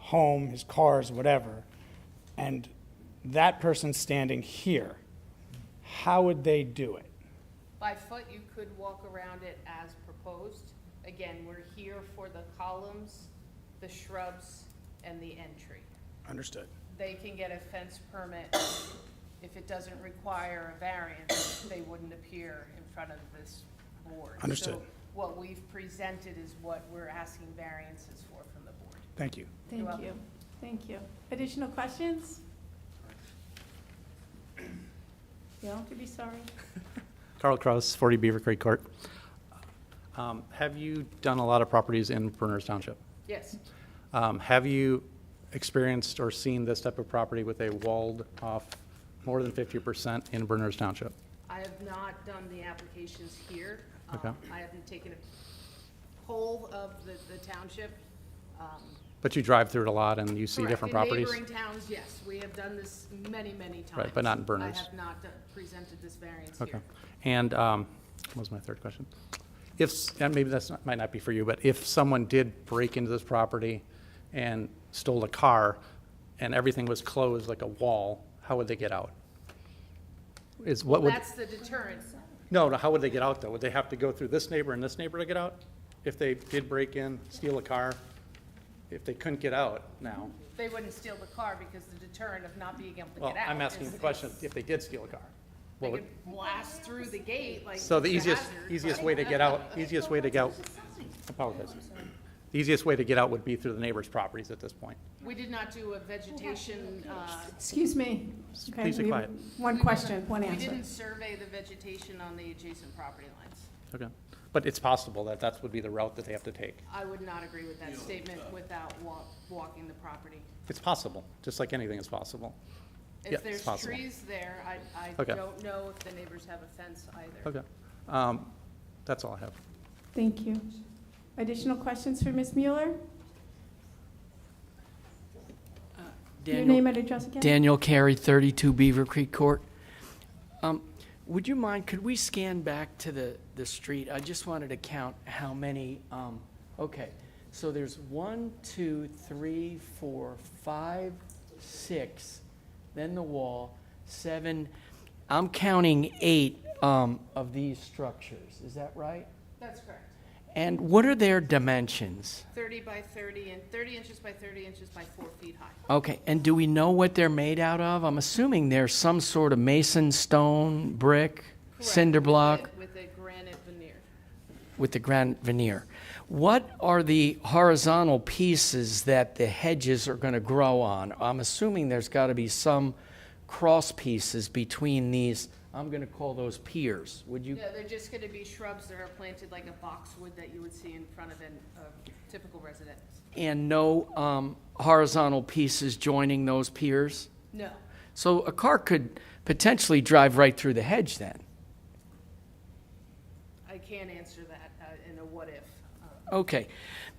home, his cars, whatever, and that person's standing here, how would they do it? By foot, you could walk around it as proposed. Again, we're here for the columns, the shrubs, and the entry. Understood. They can get a fence permit. If it doesn't require a variance, they wouldn't appear in front of this board. Understood. So What we've presented is what we're asking variances for from the board. Thank you. You're Thank welcome. you, thank you. Additional questions? You don't have to be sorry. Carl Kraus, 40 Beaver Creek Court. Um, Have you done a lot of properties in Berners Township? Yes, Um, Have you experienced or seen this type of property with a walled-off more than 50% in Berners Township? I have not done the applications here. Okay. Um, I haven't taken a poll of the, the township. Um, But you drive through it a lot and you see Correct. different properties? In neighboring towns, yes, we have done this many, many times. Right, but not in Berners. I have not done- presented this variance Okay. here. And um, what was my third question? If, s- and maybe that's, not- might not be for you, but if someone did break into this property and stole a car and everything was closed like a wall, how would they get out? Is, what would, That's the deterrent. no, no, how would they get out though? Would they have to go through this neighbor and this neighbor to get out? If they did break in, steal a car, if they couldn't get out now? They wouldn't steal the car because the deterrent of not being able to Well, get out. I'm asking is- the question, is if they did steal a car? They what would- could blast through the gate like. So the it's a easiest, hazard, easiest but- way to get out, easiest way to go, apologize. The easiest way to get out would be through the neighbor's properties at this point. We did not do a vegetation, uh, Excuse me. Okay, Please be we- quiet. One question, one we answer. didn't survey the vegetation on the adjacent property lines. Okay. But it's possible that that would be the route that they have to take. I would not agree with that statement without wa- walking the property. It's possible, just like anything is possible. Yeah, If it's there's possible. trees there, I, I Okay. don't know if the neighbors have a fence either. Okay. Um, That's all I have. Thank you. Additional questions for Ms. Mueller? Your name Daniel, and address again? Daniel Carey, 32 Beaver Creek Court. Um, Would you mind, could we scan back to the, the street? I just wanted to count how many, um, okay. So there's one, two, three, four, five, six, then the wall, seven. I'm counting eight um, of these structures, is that right? That's correct. And what are their dimensions? Thirty by thirty and thirty inches by thirty inches by four feet high. Okay, and do we know what they're made out of? I'm assuming they're some sort of mason, stone, brick, cinder Correct, with block a- With a granite veneer. with the granite veneer. What are the horizontal pieces that the hedges are going to grow on? I'm assuming there's got to be some cross pieces between these, I'm going to call those piers. Would you? No, they're just gonna be shrubs that are planted like a boxwood that you would see in front of an, a typical residence. And no um, horizontal pieces joining those piers? No, So a car could potentially drive right through the hedge then? I can't answer that uh, in a what if. Uh, Okay.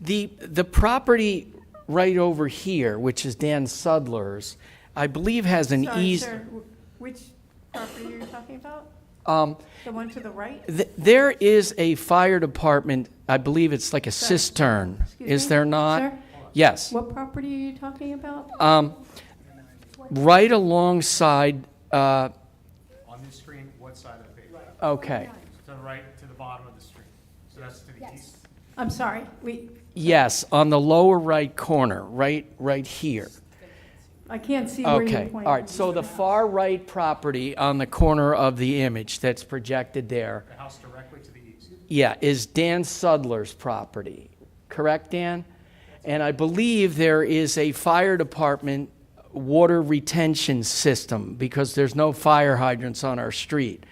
The, the property right over here, which is Dan Sudler's, I believe has an Sorry, sir, easement. wh- Which property are you talking about? Um, The one to the right? th- there is a fire department, I believe it's like a cistern, Excuse is me? there not? Sir, Yes. what property are you talking about? Um, right alongside, uh, On this screen, what side of the page? okay, To the right, to the bottom of the screen. So that's to the east. I'm sorry, we, yes, on the lower right corner, right, right here. I can't see where you're Okay, pointing. all right, so the far right property on the corner of the image that's projected there The house directly to the east. Yeah, is Dan Sudler's property, correct, Dan? And I believe there is a fire department water retention system because there's no fire hydrants on our street.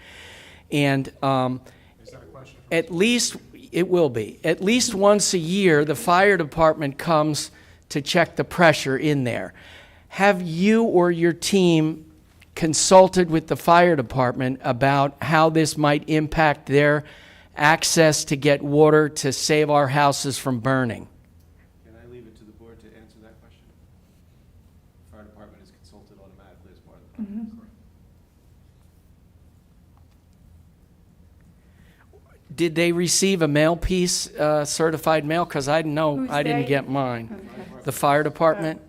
And um, Is that a question? for- at least, it will be, at least once a year, the fire department comes to check the pressure in there. Have you or your team consulted with the fire department about how this might impact their access to get water to save our houses from burning? Can I leave it to the board to answer that question? Fire department is consulted automatically as part of the process. Did they receive a mail piece, uh, certified mail? Because I didn't know, Who's I didn't they? get mine. Okay. The fire department?